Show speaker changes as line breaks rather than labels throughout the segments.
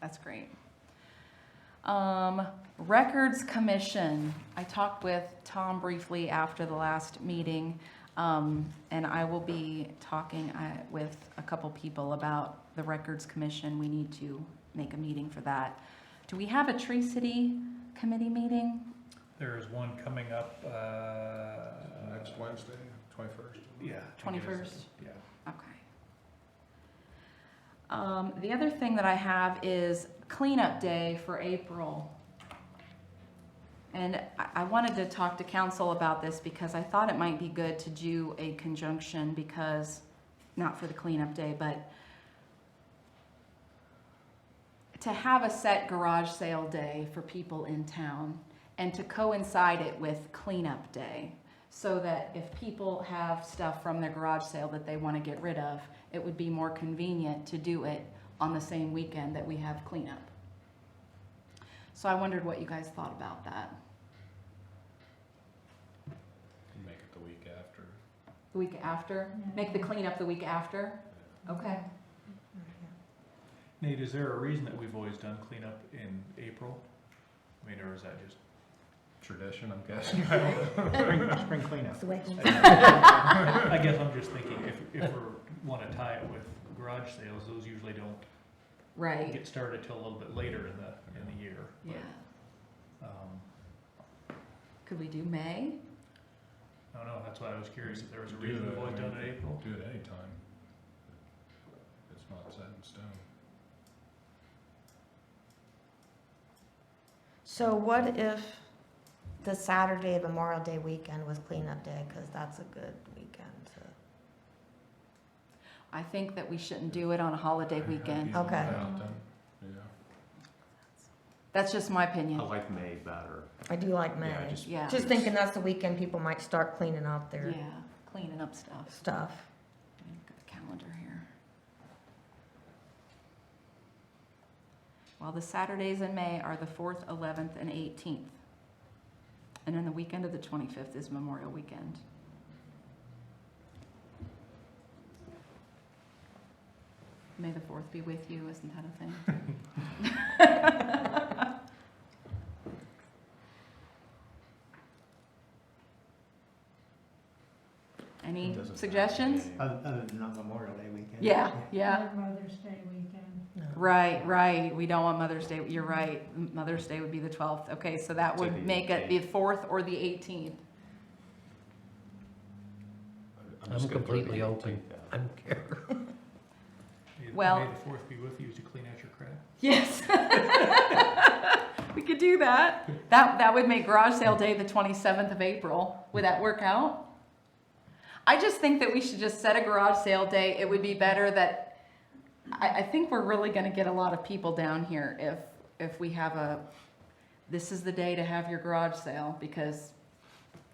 That's great. Um, Records Commission, I talked with Tom briefly after the last meeting, um, and I will be talking uh, with a couple people about the Records Commission. We need to make a meeting for that. Do we have a Tree City Committee meeting?
There is one coming up, uh.
Next Wednesday, twenty-first.
Yeah. I think it is.
21st?
Yeah.
Okay. Um, the other thing that I have is cleanup day for April. And I, I wanted to talk to council about this because I thought it might be good to do a conjunction because, not for the cleanup day, but to have a set garage sale day for people in town and to coincide it with cleanup day so that if people have stuff from their garage sale that they want to get rid of, it would be more convenient to do it on the same weekend that we have cleanup. So I wondered what you guys thought about that,
Make it the week after.
the week after, make the cleanup the week after? Okay.
Nate, is there a reason that we've always done cleanup in April? I mean, or is that just?
Tradition, I'm guessing.
Spring cleanup.
It's the way things-
I guess I'm just thinking if, if we wanna tie it with garage sales, those usually don't
Right,
get started till a little bit later in the, in the year.
yeah.
Um,
Could we do May?
I don't know, that's why I was curious if there was a reason we've always done it in April.
Do it anytime. It's not set in stone.
So what if the Saturday of Memorial Day weekend was cleanup day, because that's a good weekend to,
I think that we shouldn't do it on a holiday weekend.
Okay.
Yeah, done. Yeah.
That's just my opinion.
Oh.
like May better.
I do like May.
Yeah,
Yeah,
Just thinking that's the weekend people might start cleaning up
yeah,
their
cleaning up stuff.
stuff.
Look at the calendar here. Well, the Saturdays in May are the fourth, eleventh, and eighteenth. And then the weekend of the twenty-fifth is Memorial Weekend. May the fourth be with you, isn't that a thing? Any suggestions?
Other than on Memorial Day weekend.
Yeah, yeah.
Mother's Day weekend.
No.
Right, right. We don't want Mother's Day. You're right. M- Mother's Day would be the 12th. Okay, so that
To the
would make it the 4th or the 18th.
I'm completely open.
May the-
Well-
May the fourth be with you as you clean out your crap.
Yes. We could do that. That, that would make garage sale day the 27th of April. Would that work out? I just think that we should just set a garage sale day. It would be better that, I, I think we're really gonna get a lot of people down here if, if we have a, this is the day to have your garage sale because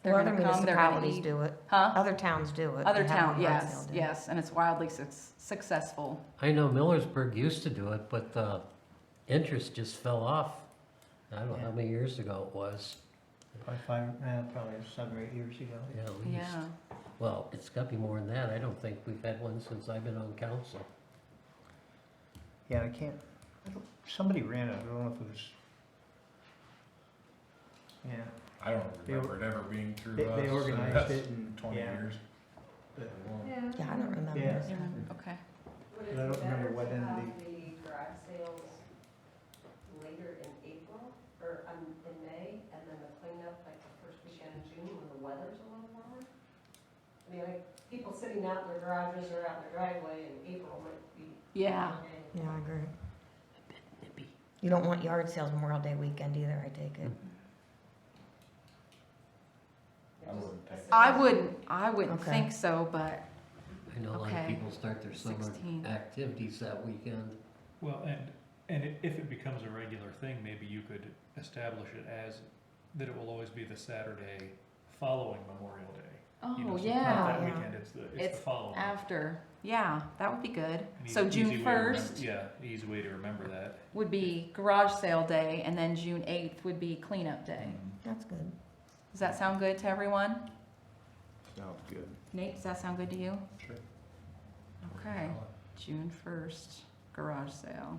they're
Well, other
gonna come, they're gonna
municipalities
eat.
do it,
Huh?
other towns do it.
Other
They have
town,
a yard
yes,
sale day.
yes, and it's wildly suc- successful.
I know Millersburg used to do it, but the interest just fell off. I don't know how many years ago it was.
Probably five, eh, probably seven or eight years ago.
Yeah, at least.
Yeah,
Well, it's got to be more than that. I don't think we've had one since I've been on council.
Yeah, I can't, I don't- somebody ran it, I don't know if it was. Yeah,
I don't
They or-
remember it ever being through
they,
us.
they
and
organized
that's
it and,
Twenty
yeah.
years.
but-
Yeah.
Yeah, I don't remember.
Yeah.
yeah, okay.
But I don't remember what entity.
Yeah,
Yeah, I agree. You don't want yard sales Memorial Day weekend either, I take it.
I wouldn't take it.
I wouldn't, I wouldn't
Okay.
think so, but
I know a lot of
Okay.
people start their summer
16.
activities that weekend.
Well, and, and i- if it becomes a regular thing, maybe you could establish it as, that it will always be the Saturday following Memorial Day. You know,
Oh,
so it's not
yeah,
that
yeah.
weekend, it's the, it's
It's
the following.
after, yeah, that would be good.
An
So
easy- easy
June
way to remem-
first
Yeah, an easy way to remember that.
would be garage sale day, and then June eighth would be cleanup day.
Mm-hmm.
That's good.
Does that sound good to everyone?
Sounds good.
Nate, does that sound good to you?
Sure.
Okay, June first, garage sale.